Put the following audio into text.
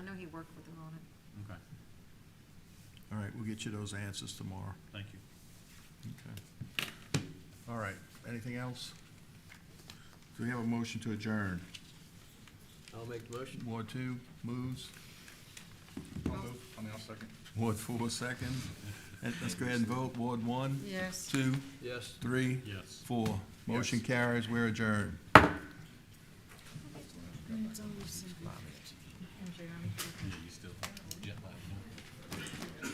work with them on it. Okay, All right, we'll get you those answers tomorrow. thank you. Okay. All right, anything else? Do we have a motion to adjourn? I'll make the motion. Ward two moves, I'll move. I mean, I'll second. Ward four second. And Let's go ahead and vote. Ward one, Yes. two, Yes. three, Yes. four. Motion carries, we're adjourned. It's always symbolic. And Jeremy. Yeah, you still jet lag.